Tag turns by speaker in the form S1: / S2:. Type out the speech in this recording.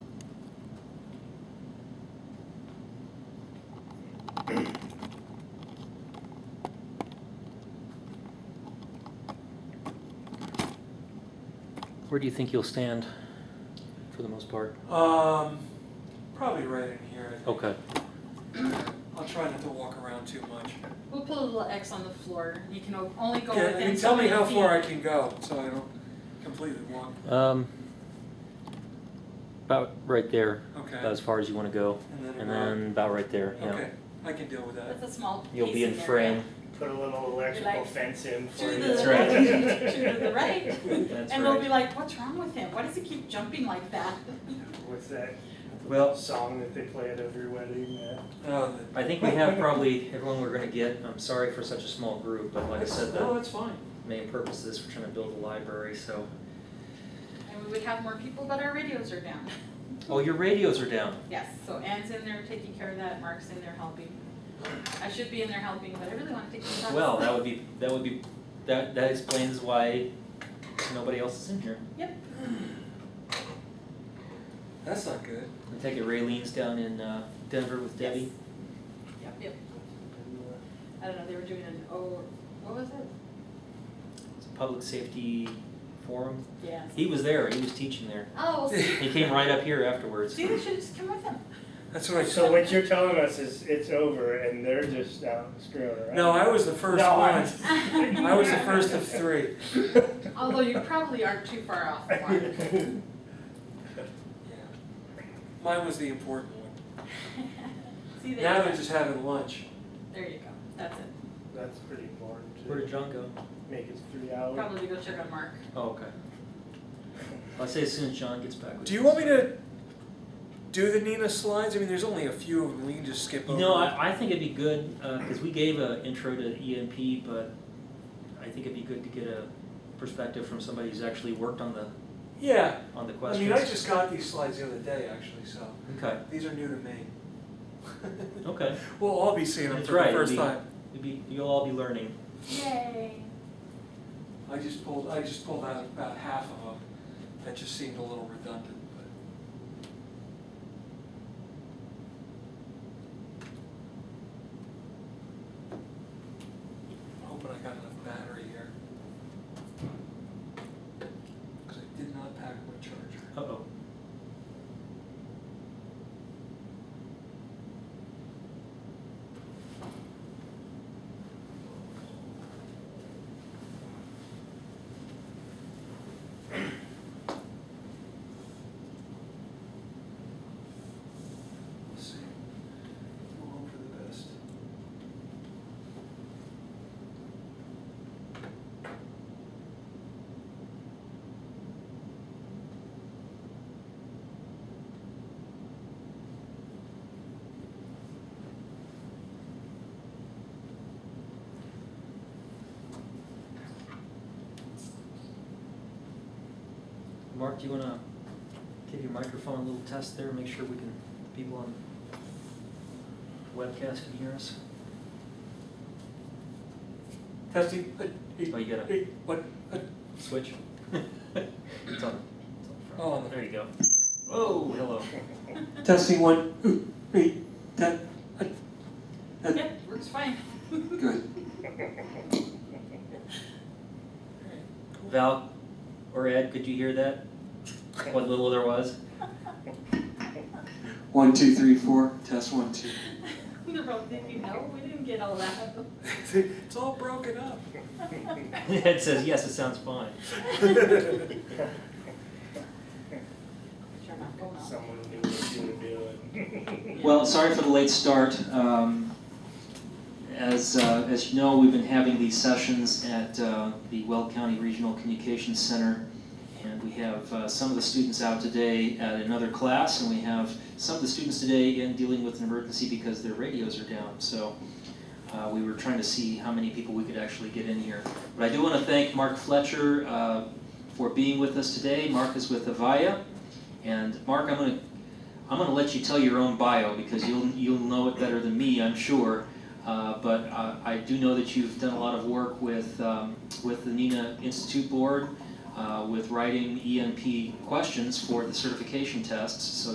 S1: Where do you think you'll stand for the most part?
S2: Um, probably right in here. I think.
S1: Okay,
S2: I'll try not to walk around too much.
S3: We'll put a little X on the floor. You can o- only go
S2: Yeah,
S3: within.
S2: I mean,
S3: so
S2: tell me
S3: many
S2: how
S3: feet.
S2: far I can go so I don't completely walk.
S1: um, about right there,
S2: Okay.
S1: about as far as you wanna go,
S2: and then,
S1: and
S2: around.
S1: then about right there, yeah.
S2: okay, I can deal with that.
S3: That's a small.
S1: You'll be in
S3: piece of area.
S1: frame.
S4: Put a little electrical
S3: Like,
S4: fence in for
S3: To
S4: you.
S3: the
S1: That's
S3: left,
S1: right.
S3: to the right.
S1: That's
S3: And they'll be like, what's wrong with him? Why does he keep jumping like that?
S4: What's that
S1: Well,
S4: song that they play at every wedding? uh,
S2: Oh,
S1: I think we have probably everyone we're gonna get. I'm sorry for such a small group, but like I said,
S2: no,
S1: the
S2: that's fine.
S1: main purpose is we're trying to build a library, so.
S3: And we would have more people, but our radios are down.
S1: Oh, your radios are down.
S3: Yes, so Anne's in there taking care of that, Mark's in there helping. I should be in there helping, but I really wanna take some shots.
S1: Well, that would be, that would be, that, that explains why nobody else is in here.
S2: That's not good.
S1: I take it Raylene's down in uh, Denver with
S3: Yes.
S1: Debbie.
S3: Yep, yep. I don't know, they were doing an O, what was it?
S1: It's a public safety forum.
S3: Yes.
S1: He was there, he was teaching there.
S3: Oh, well, see,
S1: He came right up here afterwards.
S3: see, they should just come with him.
S2: That's what I
S4: So what you're telling us is it's over and they're just now screwing around.
S2: No, I was the first
S4: No,
S2: one.
S4: I'm just kidding.
S2: I was the first of three.
S3: Although you probably aren't too far off the mark.
S2: Yeah. Mine was the important one.
S3: See, there
S2: Now
S3: you
S2: they're
S3: go.
S2: just having lunch.
S3: There you go, that's it.
S4: That's pretty important
S1: Where did
S4: to
S1: John go?
S4: make it three hours.
S3: Probably go check on Mark.
S1: Oh, okay. I'll say as soon as John gets back with
S2: Do you want me to do the Nina slides? I mean, there's only a few of them. We can just skip
S1: You
S2: over.
S1: know,
S2: them.
S1: I, I think it'd be good, uh 'cause cause we gave a intro to EMP, but I think it'd be good to get a perspective from somebody who's actually worked on the,
S2: yeah.
S1: on the
S2: I
S1: questions.
S2: mean, I just got these slides the other day, actually, so
S1: Okay,
S2: these are new to me.
S1: okay,
S2: We'll all be seeing them
S1: That's
S2: for the
S1: right,
S2: first
S1: we-
S2: time.
S1: you'll be, you'll all be learning.
S3: Yay.
S2: I just pulled, I just pulled out about half of them. That just seemed a little redundant, but. I'm hoping I got enough battery here. Cause I did not pack my charger.
S1: Uh-oh.
S2: We'll see. We'll hope for the best.
S1: Mark, do you wanna give your microphone a little test there, make sure we can, people on webcast can hear us?
S2: Testing. Uh,
S1: Oh, you gotta
S2: uh, What? Uh,
S1: switch. It's on, it's on the front.
S2: Oh, on the-
S1: There you go. Whoa, hello.
S2: Testing one, two, three, that, uh,
S3: Yeah, works fine.
S2: good.
S1: Val or Ed, could you hear that? What little there was?
S2: One, two, three, four, test one, two.
S3: They're both thinking, no, we didn't get all that.
S2: It's all broken up.
S1: Ed says, yes, it sounds fine.
S3: Sure, not going on.
S4: Someone knew what you were doing.
S1: Well, sorry for the late start. Um, As, uh, as you know, we've been having these sessions at uh, the Weld County Regional Communications Center. And we have uh, some of the students out today at another class, and we have some of the students today again dealing with an emergency because their radios are down. So uh, we were trying to see how many people we could actually get in here. But I do want to thank Mark Fletcher uh, for being with us today. Mark is with Avaya. And Mark, I'm going to I'm going to let you tell your own bio because you'll you'll know it better than me, I'm sure. Uh, but uh, I do know that you've done a lot of work with um, with the NINA Institute E Board uh, with writing ENP questions for the certification tests, so